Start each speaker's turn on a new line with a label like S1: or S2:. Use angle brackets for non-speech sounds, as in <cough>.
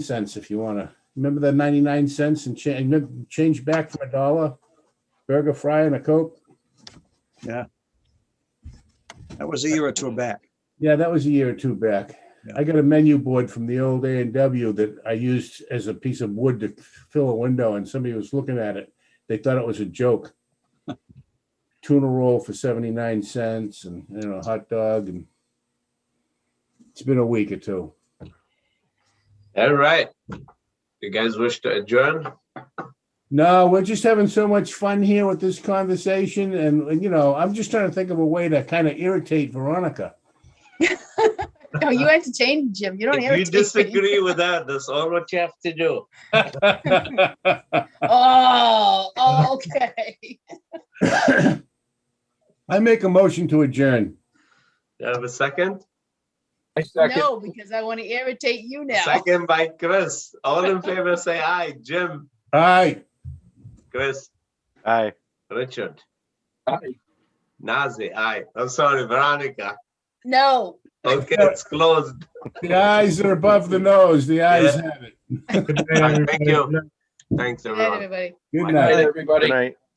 S1: cents if you want to. Remember the 99 cents and cha- and change back from a dollar? Burger, fry and a Coke?
S2: That was a year or two back.
S1: Yeah, that was a year or two back.
S2: Yeah.
S1: I got a menu board from the old A and W that I used as a piece of wood to fill a window and somebody was looking at it. They thought it was a joke. Tuna roll for 79 cents and, you know, hot dog and it's been a week or two.
S3: All right. You guys wish to adjourn?
S1: No, we're just having so much fun here with this conversation and, and, you know, I'm just trying to think of a way to kind of irritate Veronica.
S4: No, you have to change, Jim. You don't
S3: If you
S4: irritate me.
S3: disagree with that, that's all what you have to do.
S4: <laughs> Oh, oh, okay.
S1: I make a motion to adjourn.
S3: You have a second?
S5: I second.
S4: No, because I want to irritate you now.
S3: Second by Chris. All in favor, say aye. Jim,
S1: All right,
S3: Chris,
S5: Aye.
S3: Richard,
S5: Aye.
S3: Nazi, aye. I'm sorry, Veronica.
S4: No.
S3: Okay, it's closed.
S1: the eyes are above the nose. The eyes
S3: Yeah.
S1: have it.
S3: Thank you. Thanks,
S4: Good
S3: everyone.
S4: night, everybody.
S1: Good
S5: Good night,
S1: night.
S5: everybody.
S3: Good
S5: night.